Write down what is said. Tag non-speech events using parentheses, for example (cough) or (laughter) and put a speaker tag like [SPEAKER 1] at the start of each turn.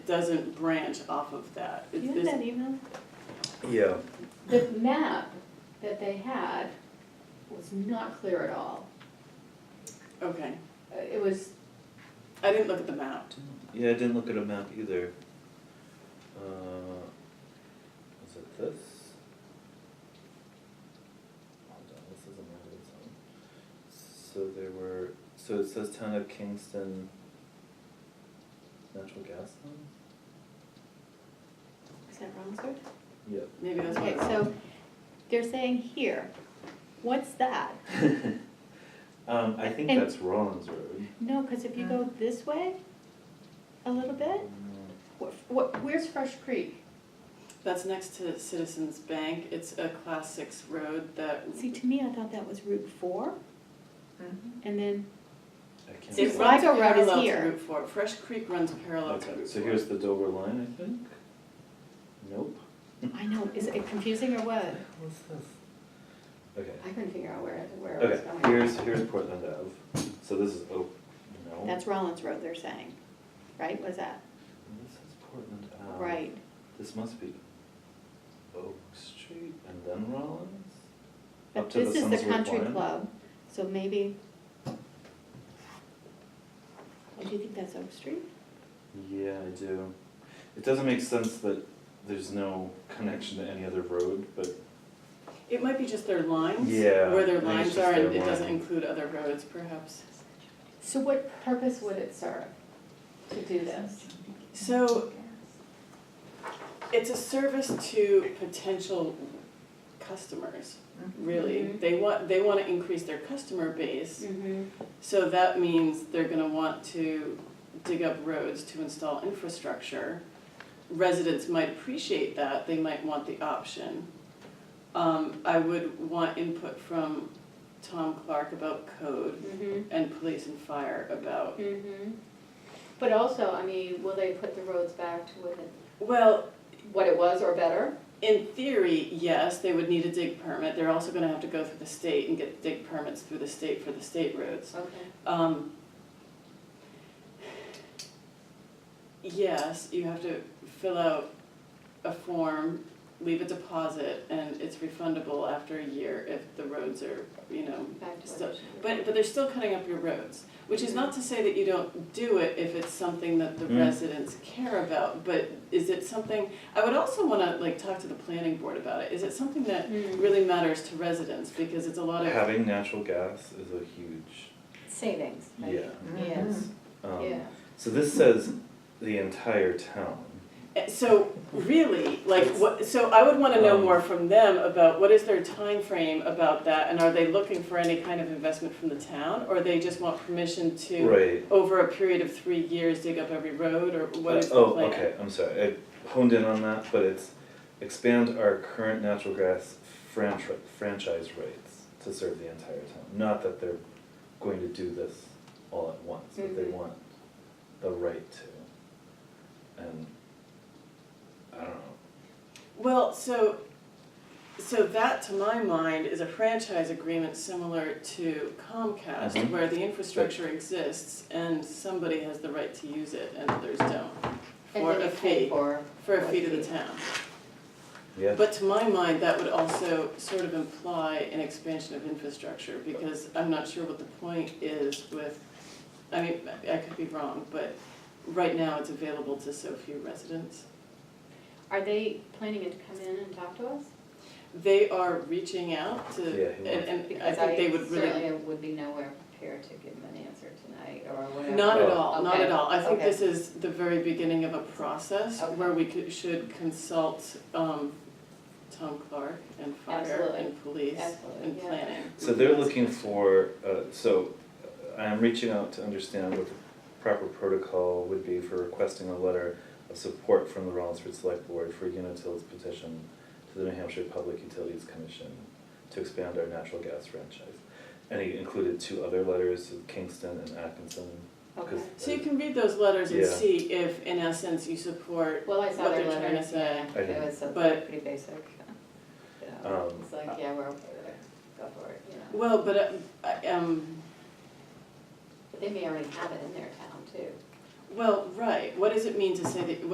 [SPEAKER 1] doesn't branch off of that. It-
[SPEAKER 2] You have
[SPEAKER 1] it's-
[SPEAKER 2] that email?
[SPEAKER 3] Yeah,
[SPEAKER 4] The map that they had was not clear at all.
[SPEAKER 1] Okay,
[SPEAKER 4] Uh, It was,
[SPEAKER 1] I didn't look at the map.
[SPEAKER 3] yeah, I didn't look at a map either. Uh, is it this? Hold on, this is a map of its own. So there were, so it says town of Kingston natural gas line?
[SPEAKER 2] Is that wrong, sir?
[SPEAKER 3] Yep.
[SPEAKER 1] Maybe that's
[SPEAKER 2] Okay,
[SPEAKER 1] what,
[SPEAKER 2] so they're saying here, what's that?
[SPEAKER 3] (laughs) Um, I think
[SPEAKER 2] And-
[SPEAKER 3] that's Rollins Road.
[SPEAKER 2] No, because if you
[SPEAKER 4] Uh.
[SPEAKER 2] go this way a little bit,
[SPEAKER 3] Um,
[SPEAKER 2] what, what, where's Fresh Creek?
[SPEAKER 1] that's next to Citizens Bank. It's a class six road that,
[SPEAKER 2] See, to me, I thought that was Route Four.
[SPEAKER 4] Mm-hmm.
[SPEAKER 2] And then,
[SPEAKER 3] I can't.
[SPEAKER 1] it
[SPEAKER 2] See,
[SPEAKER 3] remember.
[SPEAKER 1] runs
[SPEAKER 2] Sligo Road is
[SPEAKER 1] parallel to
[SPEAKER 2] here.
[SPEAKER 1] Route Four. Fresh Creek runs parallel to Route
[SPEAKER 3] Okay,
[SPEAKER 1] Four.
[SPEAKER 3] so here's the Dover line, I think? Nope. (laughs)
[SPEAKER 2] I know, is it confusing or what?
[SPEAKER 3] What's this? Okay.
[SPEAKER 4] I couldn't figure out where, it- where it was
[SPEAKER 3] Okay,
[SPEAKER 4] going.
[SPEAKER 3] here's, here's Portland Ave, so this is Oak, no.
[SPEAKER 2] That's Rollins Road they're saying, right? What is that?
[SPEAKER 3] This is Portland Ave.
[SPEAKER 2] Right.
[SPEAKER 3] This must be Oak Street and then Rollins? Up
[SPEAKER 2] But
[SPEAKER 3] to
[SPEAKER 2] this is the
[SPEAKER 3] Sunswood
[SPEAKER 2] country
[SPEAKER 3] line?
[SPEAKER 2] club, so maybe. Oh, do you think that's Oak Street?
[SPEAKER 3] Yeah, I do. It doesn't make sense that there's no connection to any other road, but
[SPEAKER 1] It might be just their lines.
[SPEAKER 3] Yeah,
[SPEAKER 1] Where their
[SPEAKER 3] I think it's
[SPEAKER 1] lines
[SPEAKER 3] just
[SPEAKER 1] are, and
[SPEAKER 3] their
[SPEAKER 1] it doesn't
[SPEAKER 3] line.
[SPEAKER 1] include other roads perhaps.
[SPEAKER 4] So what purpose would it serve to do this?
[SPEAKER 1] So it's a service to potential customers, really.
[SPEAKER 2] Mm-hmm.
[SPEAKER 4] Mhm.
[SPEAKER 1] They want, they want to increase their customer base,
[SPEAKER 4] Mm-hmm.
[SPEAKER 1] so that means they're gonna want to dig up roads to install infrastructure. Residents might appreciate that, they might want the option. Um, I would want input from Tom Clark about code
[SPEAKER 4] Mm-hmm.
[SPEAKER 1] and police and fire about
[SPEAKER 4] Mm-hmm. But also, I mean, will they put the roads back to what it,
[SPEAKER 1] Well,
[SPEAKER 4] what it was or better?
[SPEAKER 1] in theory, yes, they would need a dig permit. They're also gonna have to go through the state and get dig permits through the state for the state roads.
[SPEAKER 4] Okay.
[SPEAKER 1] Um, yes, you have to fill out a form, leave a deposit, and it's refundable after a year if the roads are, you know,
[SPEAKER 4] Back to what
[SPEAKER 1] So-
[SPEAKER 4] it should be.
[SPEAKER 1] but, but they're still cutting up your roads, which is not to say that you don't do it if it's something that the
[SPEAKER 3] Mm.
[SPEAKER 1] residents care about, but is it something, I would also wanna like talk to the planning board about it, is it something that
[SPEAKER 4] Mm.
[SPEAKER 2] Mm-hmm.
[SPEAKER 1] really matters to residents, because it's a lot of,
[SPEAKER 3] having natural gas is a huge,
[SPEAKER 4] Savings. right?
[SPEAKER 3] yeah.
[SPEAKER 4] Yes,
[SPEAKER 3] Um,
[SPEAKER 4] yeah.
[SPEAKER 3] So this says the entire town.
[SPEAKER 1] Eh, so really, like what, so I would wanna know
[SPEAKER 3] Um.
[SPEAKER 1] more from them about what is their time frame about that, and are they looking for any kind of investment from the town, or they just want permission to
[SPEAKER 3] Right.
[SPEAKER 1] over a period of three years, dig up every road, or what is the
[SPEAKER 3] Oh,
[SPEAKER 1] plan?
[SPEAKER 3] okay, I'm sorry, I honed in on that, but it's expand our current natural gas franchise, franchise rights to serve the entire town. Not that they're going to do this all at once, but they
[SPEAKER 1] Mm-hmm.
[SPEAKER 4] Mhm.
[SPEAKER 3] want the right to. And, I don't know,
[SPEAKER 1] Well, so, so that to my mind is a franchise agreement similar to Comcast,
[SPEAKER 3] Mhm.
[SPEAKER 1] where the infrastructure exists and somebody has the right to use it and others don't.
[SPEAKER 4] And
[SPEAKER 1] For
[SPEAKER 4] then
[SPEAKER 1] a
[SPEAKER 4] you pay
[SPEAKER 1] fee.
[SPEAKER 4] for.
[SPEAKER 1] For a
[SPEAKER 4] Right.
[SPEAKER 1] fee to the town.
[SPEAKER 3] yeah,
[SPEAKER 1] But to my mind, that would also sort of imply an expansion of infrastructure, because I'm not sure what the point is with, I mean, I could be wrong, but right now it's available to so few residents.
[SPEAKER 4] Are they planning to come in and talk to us?
[SPEAKER 1] They are reaching out to,
[SPEAKER 3] Yeah,
[SPEAKER 1] and,
[SPEAKER 3] he wants-
[SPEAKER 1] and I
[SPEAKER 4] Because
[SPEAKER 1] think they would really.
[SPEAKER 4] certainly would be nowhere prepared to give them an answer tonight or whatever.
[SPEAKER 1] Not at
[SPEAKER 3] Oh.
[SPEAKER 1] all, not at
[SPEAKER 4] Okay,
[SPEAKER 1] all. I think
[SPEAKER 4] okay.
[SPEAKER 1] this is the very beginning of a process
[SPEAKER 4] Okay.
[SPEAKER 1] where we could, should consult, um, Tom Clark and fire
[SPEAKER 4] Absolutely.
[SPEAKER 1] and police
[SPEAKER 4] Absolutely,
[SPEAKER 1] and
[SPEAKER 4] yeah.
[SPEAKER 1] planning.
[SPEAKER 3] so they're looking for, uh, so I am reaching out to understand what the proper protocol would be for requesting a letter of support from the Rollinsford Select Board for Unitil's petition to the New Hampshire Public Utilities Commission to expand our natural gas franchise. And he included two other letters to Kingston and Atkinson. 'cause
[SPEAKER 4] Okay.
[SPEAKER 1] So you can read those letters and
[SPEAKER 3] Yeah.
[SPEAKER 1] see if, in essence, you support,
[SPEAKER 4] Well, I saw
[SPEAKER 1] what
[SPEAKER 4] their
[SPEAKER 1] they're trying to
[SPEAKER 4] letter,
[SPEAKER 1] say.
[SPEAKER 4] yeah, it
[SPEAKER 3] Okay.
[SPEAKER 4] was something
[SPEAKER 1] But-
[SPEAKER 4] pretty basic. Yeah.
[SPEAKER 3] Um,
[SPEAKER 4] It's like, yeah, we're, go for it, you know.
[SPEAKER 1] well, but, uh, I- um,
[SPEAKER 4] But they may already have it in their town too.
[SPEAKER 1] well, right, what does it mean to say that,